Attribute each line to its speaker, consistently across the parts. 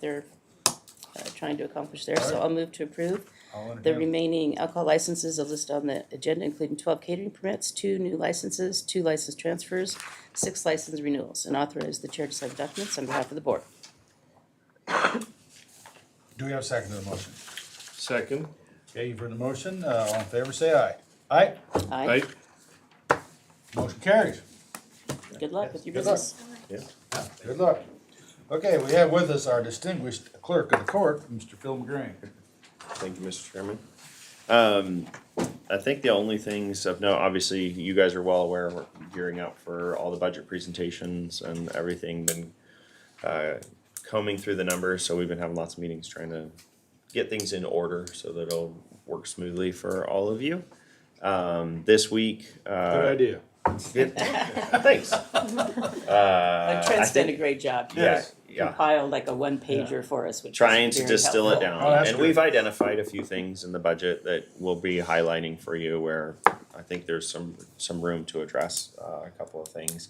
Speaker 1: they're uh, trying to accomplish there. So I'll move to approve.
Speaker 2: I'll
Speaker 1: The
Speaker 2: entertain,
Speaker 1: remaining alcohol licenses are listed on the agenda, including twelve catering permits, two new licenses, two license transfers, six license renewals, and authorize the chair to sign documents on behalf of the board.
Speaker 2: do we have a second to the motion?
Speaker 3: Second.
Speaker 2: Okay, you've heard the motion, uh, all in favor, say aye. Aye,
Speaker 3: Aye.
Speaker 2: motion carries.
Speaker 1: Good luck with your
Speaker 2: Good luck.
Speaker 1: business.
Speaker 2: Good luck. Okay, we have with us our distinguished clerk of the court, Mr. Phil McGrain.
Speaker 4: Thank you, Mr. Chairman. Um, I think the only things of note, obviously, you guys are well aware, we're gearing up for all the budget presentations and everything, been uh, combing through the numbers, so we've been having lots of meetings trying to get things in order so that it'll work smoothly for all of you. Um, This week,
Speaker 3: Good
Speaker 4: uh,
Speaker 3: idea.
Speaker 4: good- thanks.
Speaker 1: Like Trent's done a great job. He
Speaker 4: Uh, Yeah, yeah.
Speaker 1: compiled like a one pager for us, which was
Speaker 4: trying to
Speaker 1: very
Speaker 4: distill it
Speaker 1: helpful.
Speaker 2: Oh,
Speaker 4: down.
Speaker 2: that's
Speaker 4: And
Speaker 2: good.
Speaker 4: we've identified a few things in the budget that we'll be highlighting for you where I think there's some, some room to address uh, a couple of things.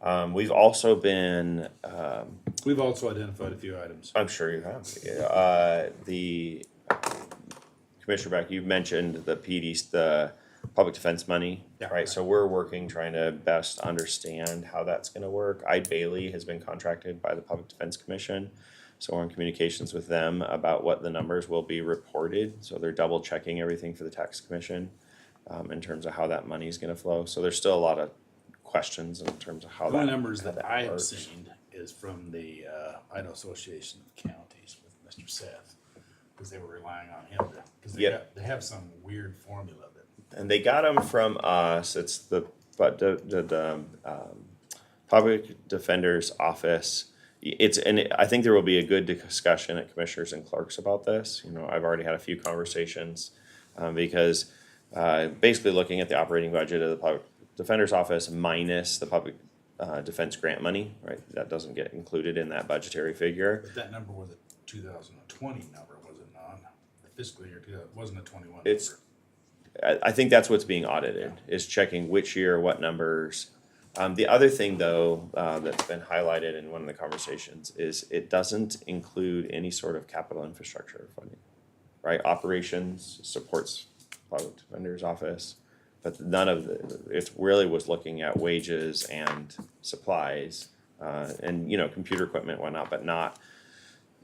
Speaker 4: Um, we've also been, um,
Speaker 3: We've also identified a few items.
Speaker 4: I'm sure you have, yeah, uh, the, Commissioner Beck, you mentioned the PD's, the public defense money,
Speaker 3: Yeah.
Speaker 4: right? So we're working, trying to best understand how that's gonna work. Ide Bailey has been contracted by the Public Defense Commission. So we're in communications with them about what the numbers will be reported, so they're double checking everything for the tax commission um, in terms of how that money is gonna flow. So there's still a lot of questions in terms of how
Speaker 3: The
Speaker 4: that.
Speaker 3: only numbers
Speaker 4: how
Speaker 3: that I have
Speaker 4: works.
Speaker 3: seen is from the uh, Idaho Association of Counties with Mr. Seth, because they were relying on him to, because they
Speaker 4: Yep.
Speaker 3: got, they have some weird formula that.
Speaker 4: and they got them from us. It's the but the the, the um, public defender's office. It's and it, I think there will be a good discussion at commissioners and clerks about this. You know, I've already had a few conversations um, because uh, basically looking at the operating budget of the public defender's office minus the public uh, defense grant money, right? That doesn't get included in that budgetary figure.
Speaker 3: But that number was a two thousand and twenty number, was it not? The fiscal year, 2000 it wasn't a twenty-one number.
Speaker 4: It's- I, I think that's what's being audited, is checking which year, what numbers. Um, the other thing though, uh, that's been highlighted in one of the conversations is it doesn't include any sort of capital infrastructure funding. Right, operations supports public defender's office, but none of the, it really was looking at wages and supplies. Uh, and, you know, computer equipment, whatnot, but not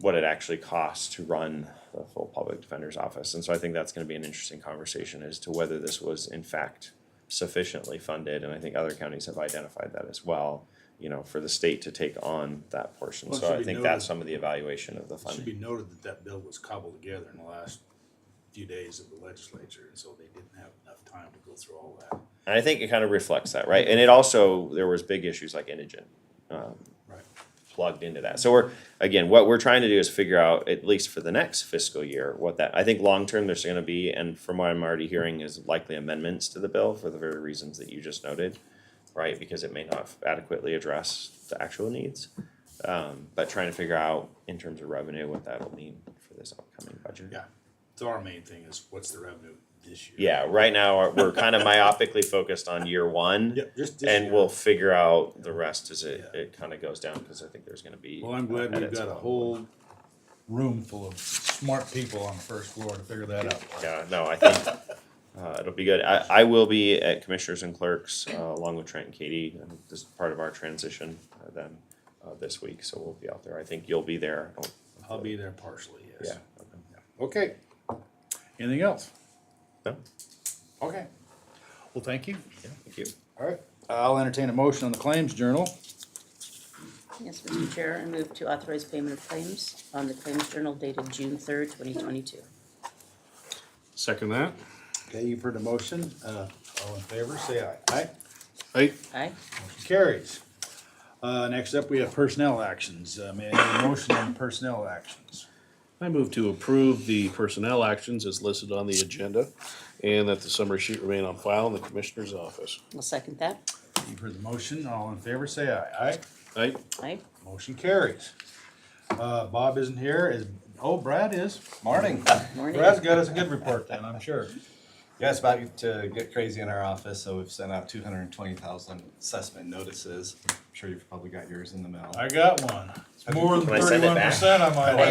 Speaker 4: what it actually costs to run the full public defender's office. And so I think that's gonna be an interesting conversation as to whether this was in fact sufficiently funded, and I think other counties have identified that as well, you know, for the state to take on that portion.
Speaker 3: Well, it
Speaker 4: So
Speaker 3: should
Speaker 4: I
Speaker 3: be
Speaker 4: think
Speaker 3: noted-
Speaker 4: that's some of the evaluation of the
Speaker 3: It Should be
Speaker 4: funding.
Speaker 3: noted that that bill was cobbled together in the last few days of the legislature, and so they didn't have enough time to go through all that.
Speaker 4: And I think it kind of reflects that, right? And it also, there was big issues like indigent, um,
Speaker 3: Right.
Speaker 4: plugged into that. So we're, again, what we're trying to do is figure out, at least for the next fiscal year, what that, I think long-term, there's gonna be, and from what I'm already hearing, is likely amendments to the bill for the very reasons that you just noted, right? Because it may not adequately address the actual needs. Um, but trying to figure out in terms of revenue, what that'll mean for this upcoming budget.
Speaker 3: Yeah, so our main thing is what's the revenue this year?
Speaker 4: Yeah, right now, uh, we're kind of myopically focused on year one.
Speaker 3: Yep, just this
Speaker 4: And
Speaker 3: year.
Speaker 4: we'll figure out the rest as it,
Speaker 3: Yeah.
Speaker 4: it kind of goes down, because I think there's gonna be.
Speaker 3: Well, I'm glad
Speaker 4: uh,
Speaker 3: we've
Speaker 4: edits
Speaker 3: got a
Speaker 4: along the
Speaker 3: whole,
Speaker 2: Room full of smart people on the first floor to figure that out.
Speaker 4: Yeah, no, I think uh, it'll be good. I, I will be at Commissioners and Clerks uh, along with Trent and Katie. and This is part of our transition uh, then uh, this week, so we'll be out there. I think you'll be there. I don't-
Speaker 3: I'll be there partially,
Speaker 4: Yeah.
Speaker 3: yes.
Speaker 4: okay.
Speaker 3: Okay, anything else?
Speaker 4: No,
Speaker 3: Okay, well, thank you.
Speaker 4: thank you.
Speaker 2: All right, I'll entertain a motion on the claims journal.
Speaker 1: Yes, Mr. Chair, I move to authorize payment of claims on the claims journal dated June third, twenty twenty-two.
Speaker 3: Second that.
Speaker 2: Okay, you've heard the motion, uh, all in favor, say aye. Aye,
Speaker 3: Hey,
Speaker 1: Aye?
Speaker 2: motion carries. Uh, next up, we have personnel actions, uh, may I have a motion on personnel actions?
Speaker 5: I move to approve the personnel actions as listed on the agenda and that the summary sheet remain on file in the commissioner's office.
Speaker 1: I'll second that.
Speaker 2: You've heard the motion, all in favor, say aye. Aye,
Speaker 5: Aye.
Speaker 1: Aye?
Speaker 2: motion carries. Uh, Bob isn't here, is, oh, Brad is. Morning.
Speaker 1: Morning.
Speaker 2: Brad's got us a good report then, I'm sure.
Speaker 6: Yeah, it's about to get crazy in our office, so we've sent out two hundred and twenty thousand assessment notices. I'm sure you've probably got yours in the mail.
Speaker 2: I got one. It's more than
Speaker 4: Can I send it
Speaker 2: thirty-one
Speaker 4: back?
Speaker 2: percent on my list.